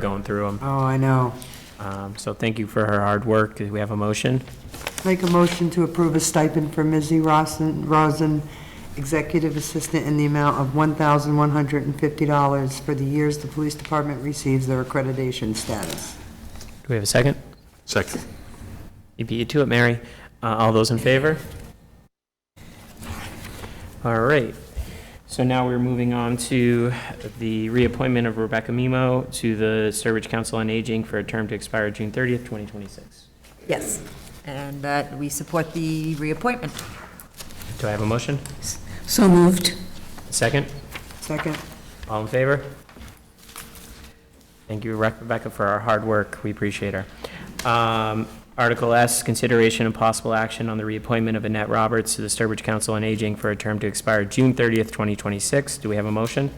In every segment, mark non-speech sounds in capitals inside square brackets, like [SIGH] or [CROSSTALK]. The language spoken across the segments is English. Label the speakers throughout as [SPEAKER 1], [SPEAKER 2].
[SPEAKER 1] going through them.
[SPEAKER 2] Oh, I know.
[SPEAKER 1] Um, So thank you for her hard work. Do we have a motion?
[SPEAKER 2] Make a motion to approve a stipend for Mizzy Rosin, Rosin, Executive Assistant, in the amount of $1,150 for the years the police department receives their accreditation status.
[SPEAKER 1] Do we have a second?
[SPEAKER 3] Second.
[SPEAKER 1] You beat you to it, Mary. Uh, All those in favor? All right. So now we're moving on to the reappointment of Rebecca Mimo to the Sturbridge Council on Aging for a term to expire June 30th, 2026.
[SPEAKER 4] Yes, and that we support the reappointment.
[SPEAKER 1] Do I have a motion?
[SPEAKER 4] So moved.
[SPEAKER 1] Second?
[SPEAKER 2] Second?
[SPEAKER 1] All in favor? Thank you, Rebecca, for our hard work. We appreciate her. Um, Article S, consideration and possible action on the reappointment of Annette Roberts to the Sturbridge Council on Aging for a term to expire June 30th, 2026. Do we have a motion?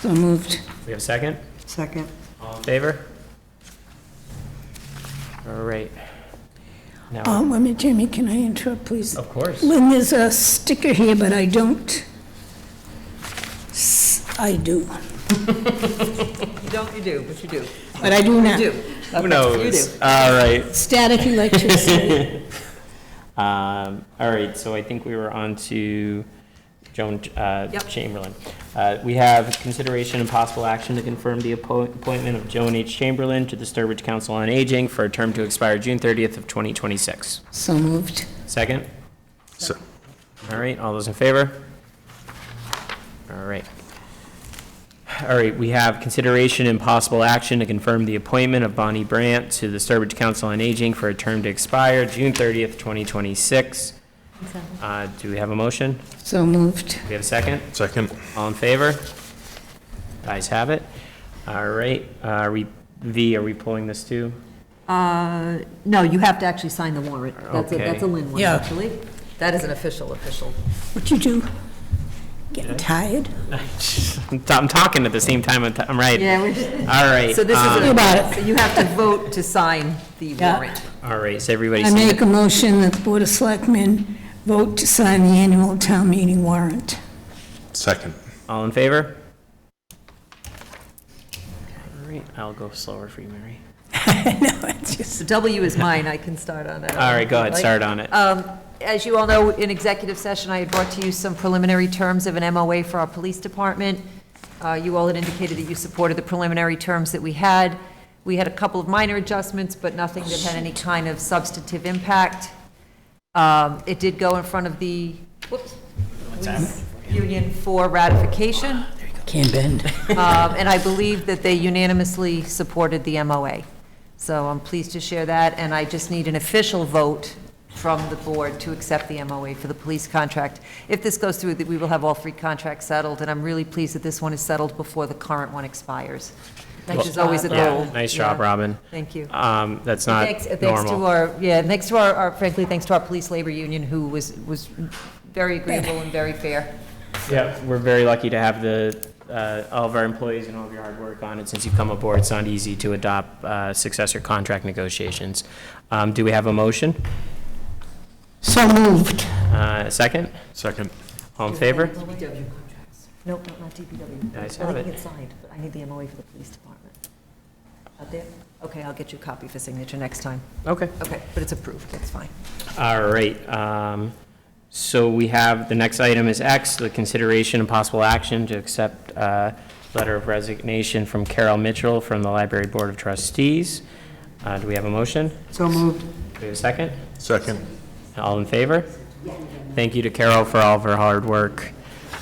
[SPEAKER 4] So moved.
[SPEAKER 1] We have a second?
[SPEAKER 2] Second?
[SPEAKER 1] All in favor? All right. Now,
[SPEAKER 5] Um, wait a minute, Jamie, can I interrupt, please?
[SPEAKER 1] of course,
[SPEAKER 5] Lynn, there's a sticker here, but I don't. S- I do,
[SPEAKER 4] You don't, you do, but you do.
[SPEAKER 5] but I do
[SPEAKER 4] You
[SPEAKER 5] now.
[SPEAKER 4] [LAUGHS] do.
[SPEAKER 1] who
[SPEAKER 4] You do.
[SPEAKER 1] knows? All right.
[SPEAKER 5] Static electricity.
[SPEAKER 1] [LAUGHS] Um, all right, so I think we were on to Joan uh,
[SPEAKER 4] Yep.
[SPEAKER 1] Chamberlain. Uh, we have consideration and possible action to confirm the appo- appointment of Joan H. Chamberlain to the Sturbridge Council on Aging for a term to expire June 30th of 2026.
[SPEAKER 5] [LAUGHS] So moved.
[SPEAKER 1] Second?
[SPEAKER 3] Se-
[SPEAKER 1] All right, all those in favor? All right. All right, we have consideration and possible action to confirm the appointment of Bonnie Brandt to the Sturbridge Council on Aging for a term to expire June 30th, 2026. Uh, Do we have a motion?
[SPEAKER 5] So moved.
[SPEAKER 1] Do we have a second?
[SPEAKER 3] Second.
[SPEAKER 1] All in favor? Guys have it. All right, uh, re- V, are we pulling this too?
[SPEAKER 4] Uh, No, you have to actually sign the warrant. That's a,
[SPEAKER 1] Okay.
[SPEAKER 4] that's a Lynn one,
[SPEAKER 5] Yeah.
[SPEAKER 4] actually. That is an official, official.
[SPEAKER 5] What you do? Getting tired?
[SPEAKER 1] I'm talking at the same time, I'm t- I'm right.
[SPEAKER 4] Yeah, we-
[SPEAKER 1] All right.
[SPEAKER 4] [LAUGHS] So this
[SPEAKER 1] um,
[SPEAKER 4] is,
[SPEAKER 5] Think about
[SPEAKER 4] an-
[SPEAKER 5] it.
[SPEAKER 4] so you have to vote to sign the
[SPEAKER 5] Yeah.
[SPEAKER 4] warrant.
[SPEAKER 1] All right, so everybody
[SPEAKER 5] I
[SPEAKER 1] seen it?
[SPEAKER 5] make a motion that the Board of Selectmen vote to sign the annual town meeting warrant. [LAUGHS]
[SPEAKER 3] Second.
[SPEAKER 1] All in favor? All right, I'll go slower for you, Mary.
[SPEAKER 5] No, it's just,
[SPEAKER 4] The W is mine, I can start on that.
[SPEAKER 1] All right, go ahead, start on it.
[SPEAKER 4] Um, As you all know, in executive session, I had brought to you some preliminary terms of an MOA for our police department. Uh, You all had indicated that you supported the preliminary terms that we had. We had a couple of minor adjustments, but nothing that had any kind of substantive impact. Um, It did go in front of the, whoops, police union for ratification,
[SPEAKER 5] can't bend.
[SPEAKER 4] Um, and I believe that they unanimously supported the MOA. So I'm pleased to share that, and I just need an official vote from the board to accept the MOA for the police contract. If this goes through, that we will have all three contracts settled, and I'm really pleased that this one is settled before the current one expires, which is always a
[SPEAKER 1] Yeah,
[SPEAKER 4] goal.
[SPEAKER 1] Nice job,
[SPEAKER 4] Yeah.
[SPEAKER 1] Robin.
[SPEAKER 4] Thank you.
[SPEAKER 1] Um, that's not
[SPEAKER 4] Thanks, thanks to
[SPEAKER 1] normal.
[SPEAKER 4] our, yeah, thanks to our- our, frankly, thanks to our police labor union, who was, was very agreeable and very fair.
[SPEAKER 1] Yeah, we're very lucky to have the, uh, all of our employees and all of your hard work on it since you've come aboard. It's not easy to adopt, uh, successor contract negotiations. Um, do we have a motion?
[SPEAKER 5] So moved.
[SPEAKER 1] Uh, second?
[SPEAKER 3] Second.
[SPEAKER 1] All in favor?
[SPEAKER 4] DPW contracts. No, no, not DPW.
[SPEAKER 1] Guys
[SPEAKER 4] I
[SPEAKER 1] have
[SPEAKER 4] think
[SPEAKER 1] it.
[SPEAKER 4] it's signed, but I need the MOA for the police department. Out there? Okay, I'll get you a copy for signature next time.
[SPEAKER 1] Okay.
[SPEAKER 4] Okay, but it's approved, that's fine.
[SPEAKER 1] All right, um, so we have, the next item is X, the consideration and possible action to accept uh letter of resignation from Carol Mitchell from the Library Board of Trustees. Uh, Do we have a motion? Do
[SPEAKER 2] So moved.
[SPEAKER 1] we have a second?
[SPEAKER 3] Second.
[SPEAKER 1] All in favor? Thank you to Carol for all of her hard work.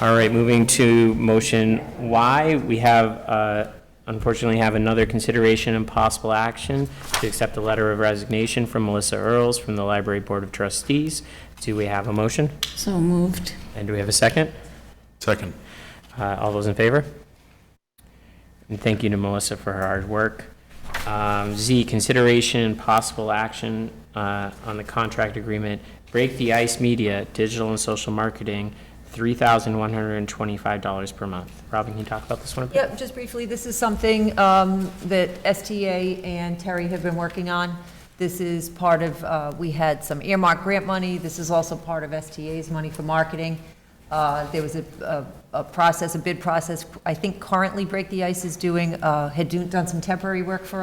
[SPEAKER 1] All right, moving to motion Y, we have, uh, unfortunately, have another consideration and possible action to accept a letter of resignation from Melissa Earls from the Library Board of Trustees. Do we have a motion?
[SPEAKER 5] So moved.
[SPEAKER 1] And do we have a second?
[SPEAKER 3] Second.
[SPEAKER 1] Uh, All those in favor? And thank you to Melissa for her hard work. Um, Z, consideration and possible action uh, on the contract agreement, Break the Ice Media, Digital and Social Marketing, $3,125 per month. Robin, can you talk about this one a bit?
[SPEAKER 4] Yep, just briefly, this is something um, that STA and Terry have been working on. This is part of, uh, we had some earmark grant money, this is also part of STA's money for marketing. Uh, There was a- a a process, a bid process. I think currently Break the Ice is doing, uh, had do- done some temporary work for us.